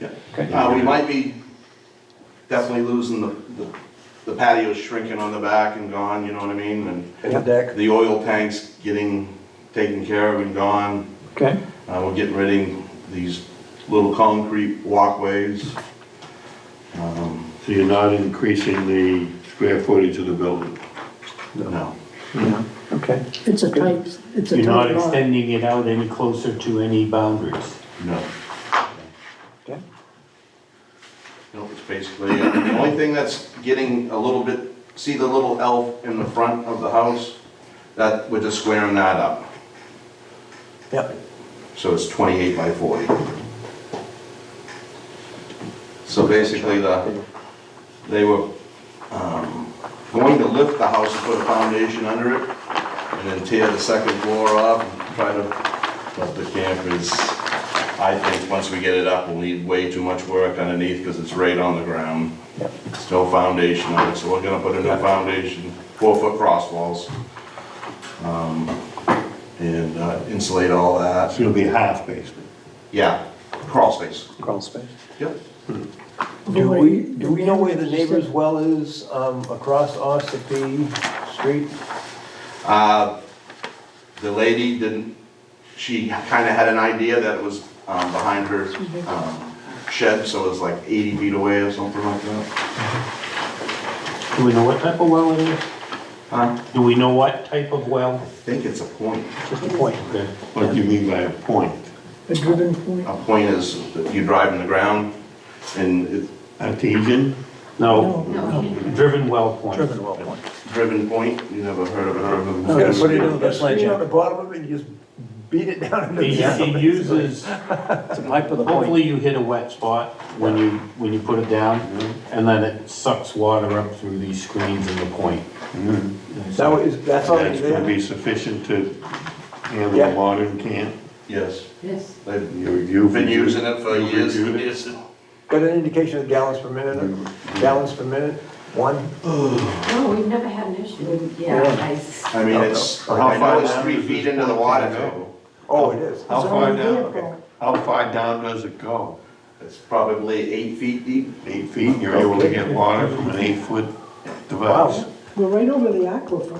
Yeah. Okay. Uh, we might be definitely losing the, the- the patio's shrinking on the back and gone, you know what I mean? And Yeah. deck. the oil tanks getting taken care of and gone. Okay, Uh, we're getting rid of these little concrete walkways. Um, So you're not increasing the square footage of the building? No, yeah, okay. It's a tight, it's a You're not tight lot. extending it out any closer to any boundaries. no. Okay. No, it's basically, the only thing that's getting a little bit, see the little elf in the front of the house? That, we're just squaring that up. Yep. So it's 28 by 40. So basically, the, they were um, going to lift the house and put a foundation under it, and then tear the second floor off, and try to, but the campers, I think, once we get it up, will need way too much work underneath, because it's right on the ground. Yep. There's no foundation on it, so we're gonna put a new foundation, four-foot cross walls, um, and uh, insulate all that. It's gonna be half basement. Yeah, crawl space. Crawl space. Yep. Do we, do we know where the neighbor's well is, um, across Ossipee Street? Uh, the lady didn't, she kinda had an idea that it was, um, behind her, um, shed, so it was like eighty feet away or something like that. Do we know what type of well it is? Huh? Do we know what type of well? I think it's a point. Just a point. Okay. What do you mean by a point? A driven point. A point is that you drive in the ground and it, Artesian? No, No, driven well point. Driven well point. driven point, you never heard of it. You gotta put it in the the screen on the bottom of it, and just beat it down into the It ground. it uses, It's a pipe with a point. hopefully you hit a wet spot when you, when you put it down, and then it sucks water up through these screens in the point. That was, that's all That's it's there? gonna be sufficient to handle Oh, Yeah. a modern camp? Yes, yes. they've You've been using it for you've years and reviewed it? years. Got an indication of gallons per minute, or gallons per minute, one? No, we've never had an issue with, yeah, Yeah. I s- I mean, it's, How I know far it's down three does feet this into the point water go? too. Oh, it is. How It's far on the down, vehicle. how far down does it go? It's probably eight feet deep. Eight feet, you're able to get water from an eight-foot device? We're right over the aquifer.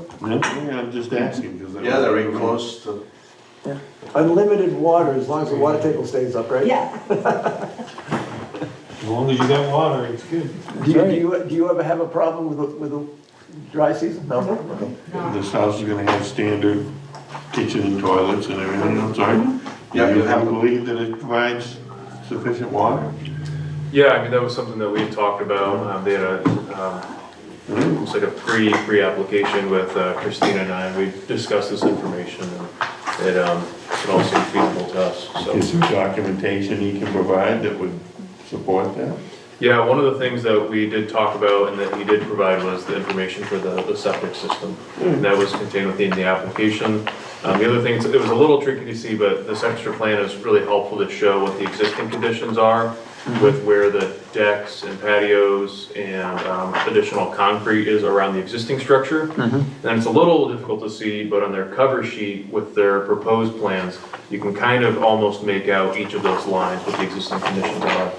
Yeah, I'm just asking, because. Yeah, they're very close to Unlimited water, as long as the water table stays up, right? Yeah. As long as you got water, it's good. Do you, do you, do you ever have a problem with, the- with the dry season? No? Okay. no. This house is gonna have standard kitchen and toilets and everything, I'm sorry. Yeah, Do you you have to- believe that it provides sufficient water? Yeah, I mean, that was something that we had talked about. Um, They had a, um, it was like a pre, pre-application with uh, Christina and I. We discussed this information and it, um, it all seemed feasible to us, so. Is there documentation he can provide that would support that? Yeah, one of the things that we did talk about and that he did provide was the information for the, the septic system. And that was contained within the application. Um, the other thing, it's- it was a little tricky to see, but this extra plan is really helpful to show what the existing conditions are with where the decks and patios and, um, additional concrete is around the existing structure. And it's a little difficult to see, but on their cover sheet with their proposed plans, you can kind of almost make out each of those lines, what the existing conditions are.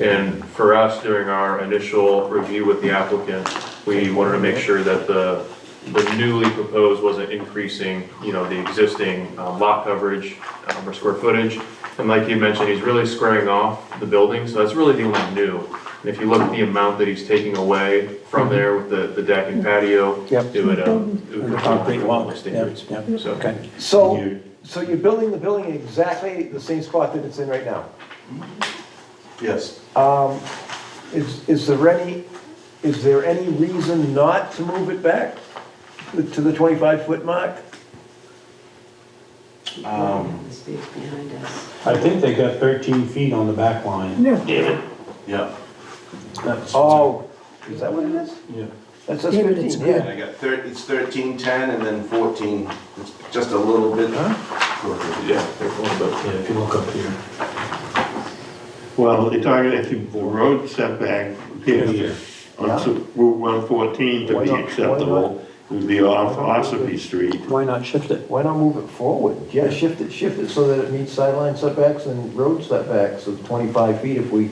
And for us, during our initial review with the applicant, we wanted to make sure that the, the newly proposed wasn't increasing, you know, the existing uh, lot coverage um, or square footage. And like you mentioned, he's really squaring off the building, so that's really the only new. And if you look at the amount that he's taking away from there with the, the deck and patio, Yep. it would, um, it would. The concrete walk, the standards. yeah, yeah, So- okay. So, so you're building the building in exactly the same spot that it's in right now? Yes, Um, is, is there any, is there any reason not to move it back to the twenty-five foot mark? The space behind us. I think they got thirteen feet on the back line. Yeah. yeah. That's- Oh, is that what it is? Yeah. That's just Yeah, but it's fifteen, yeah. I got thir it's thirteen, ten, and then fourteen, it's just a little bit. shorter. Yeah, they're going about Yeah, if you look up here. Well, you're talking, if you- the road setback Yeah. appears on S- Route one fourteen to Why be not? Why acceptable, it would be off Ossipee Street. Why not shift it? Why not move it forward? Yeah, shift it, shift it so that it meets sideline setbacks and road setbacks of twenty-five feet if we